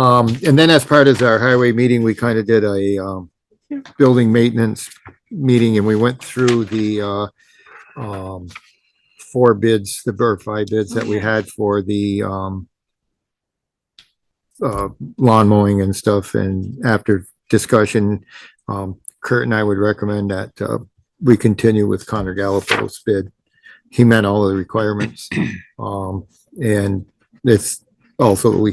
Um, and then as part of our highway meeting, we kind of did a, um, building maintenance meeting and we went through the, uh, um, four bids, the, or five bids that we had for the, um, uh, lawn mowing and stuff. And after discussion, um, Kurt and I would recommend that, uh, we continue with Connor Gallipo's bid. He met all of the requirements. Um, and it's also, we,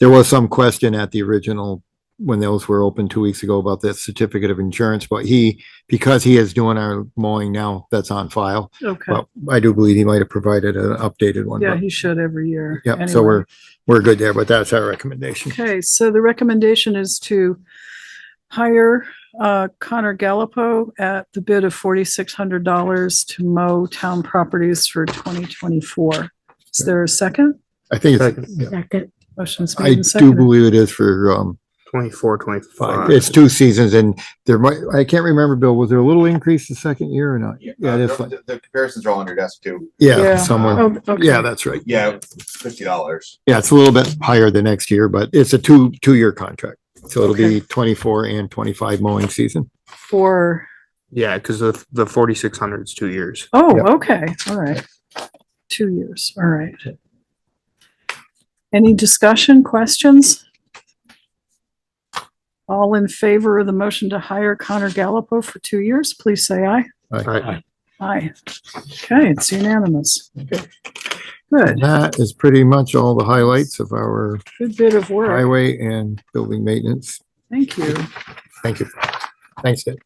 there was some question at the original, when those were open two weeks ago about that certificate of insurance, but he, because he is doing our mowing now, that's on file. Okay, But I do believe he might have provided an updated one. yeah, but- he should every year. Yep, so anyway. we're, we're good there, but that's our recommendation. Okay, so the recommendation is to hire uh, Connor Gallopo at the bid of forty-six hundred dollars to mow town properties for twenty twenty-four. Is there a second? I think, it's- yeah. Second. Motion's made I and do seconded. believe it is for, um, Twenty-four, five, twenty-five. it's two seasons and there might, I can't remember, Bill, was there a little increase the second year or not? Yeah, Yeah, uh, that's the, the comparisons are all on your desk too. Yeah. Yeah, somewhere. Oh, okay. Yeah, that's right. Yeah, fifty dollars. Yeah, it's a little bit higher than next year, but it's a two, two-year contract. So it'll be twenty-four and twenty-five mowing season. For, Yeah, because the, the forty-six hundred is two years. Yep. oh, okay, all right. Two years, all right. Any discussion, questions? All in favor of the motion to hire Connor Gallopo for two years, please say aye. Right. Aye. Okay, it's unanimous. And Good, that is pretty much all the highlights of our good bit of work. highway and building maintenance. Thank you. Thank you. Thanks, Ed.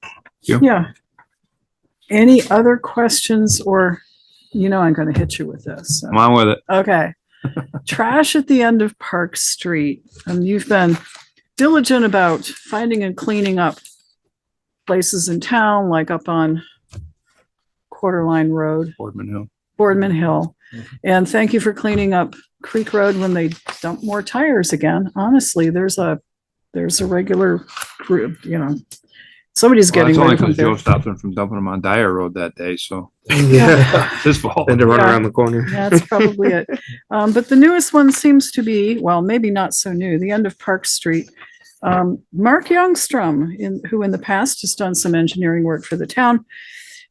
Yeah. Any other questions or, you know, I'm going to hit you with this. so. on with it. Okay. Trash at the end of Park Street. And you've been diligent about finding and cleaning up places in town, like up on Quarter Line Road. Boardman Hill. Mm-hmm. Boardman Hill. And thank you for cleaning up Creek Road when they dump more tires again. Honestly, there's a, there's a regular group, you know. Somebody's Well, getting that's only rid of because Joe them. stopped him from dumping him on Dyer Road that day, so Yeah. it's his fault. Then to run Yeah. around the corner. That's probably it. Um, but the newest one seems to be, well, maybe not so new, the end of Park Street. Um, Mark Youngstrom, in, who in the past has done some engineering work for the town,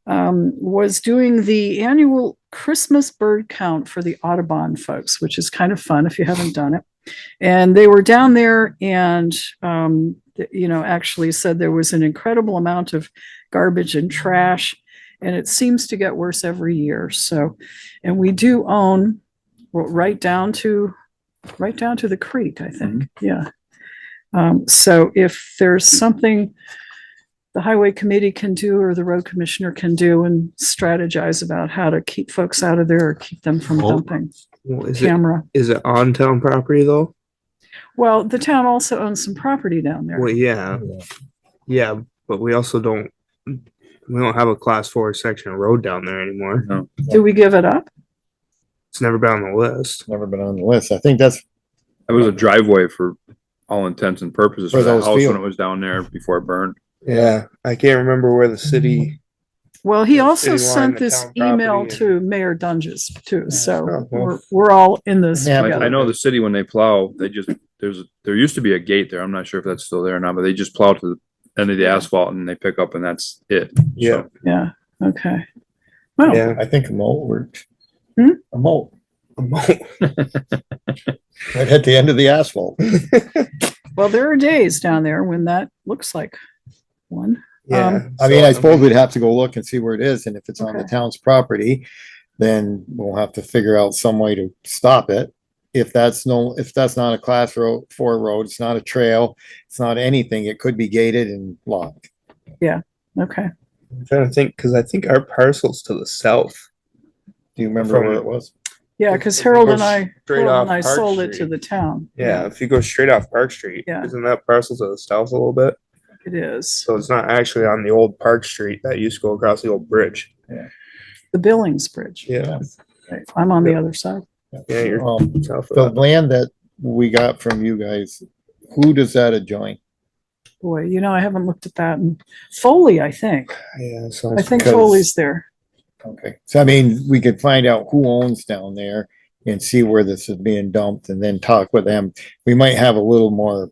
um, was doing the annual Christmas bird count for the Audubon folks, which is kind of fun if you haven't done it. And they were down there and, um, th- you know, actually said there was an incredible amount of garbage and trash. And it seems to get worse every year. So, and we do own well, right down to, right down to the creek, I think, Mm-hmm. yeah. Um, so if there's something the highway committee can do or the road commissioner can do and strategize about how to keep folks out of there or keep them from Well, dumping Well, Is it, camera. is it on town property though? Well, the town also owns some property down there. Well, yeah. Yeah, but we also don't, we don't have a class four section of road down there anymore. Do we give it up? It's never been on the list. Never been on the list. I think that's, It was a driveway for all intents and purposes For for that those house when fields. it was down there before it burned. Yeah, I can't remember where the city. Well, he The also city line, sent the this town property, email and- to Mayor Dunges too, so Oh, well. we're, we're all in this Yeah, Like, together. I know the city, when they plow, they just, there's, there used to be a gate there. I'm not sure if that's still there or not, but they just plow to the end of the asphalt and they pick up and that's it. Yeah. So, Yeah, okay. Well, Yeah. I think a mole worked. Hmm? A mole, right at the end of the asphalt. well, there are days down there when that looks like one. Um, Yeah. I mean, I So, suppose we'd have to go look and see where it is, and if it's on the Okay. town's property, then we'll have to figure out some way to stop it. If that's no, if that's not a class road, four road, it's not a trail, it's not anything, it could be gated and locked. Okay. I'm trying to think, because I think our parcel's to the south. Do you remember where From- it was? Yeah, because Harold and I, Straight Harold off and I Park sold it to Street. the town. Yeah, if you go straight off Park Street, Yeah. isn't that parcel to the south a little bit? It is. So it's not actually on the old Park Street that used to go across the old bridge. The Billings Bridge. Yeah. Right. I'm on the other side. Yeah, you're Um, south of the that. land that we got from you guys, who does that adjoin? Boy, you know, I haven't looked at that. And Foley, I think. Yeah, so I think Because- Foley's there. Okay, so I mean, we could find out who owns down there and see where this is being dumped and then talk with them. We might have a little more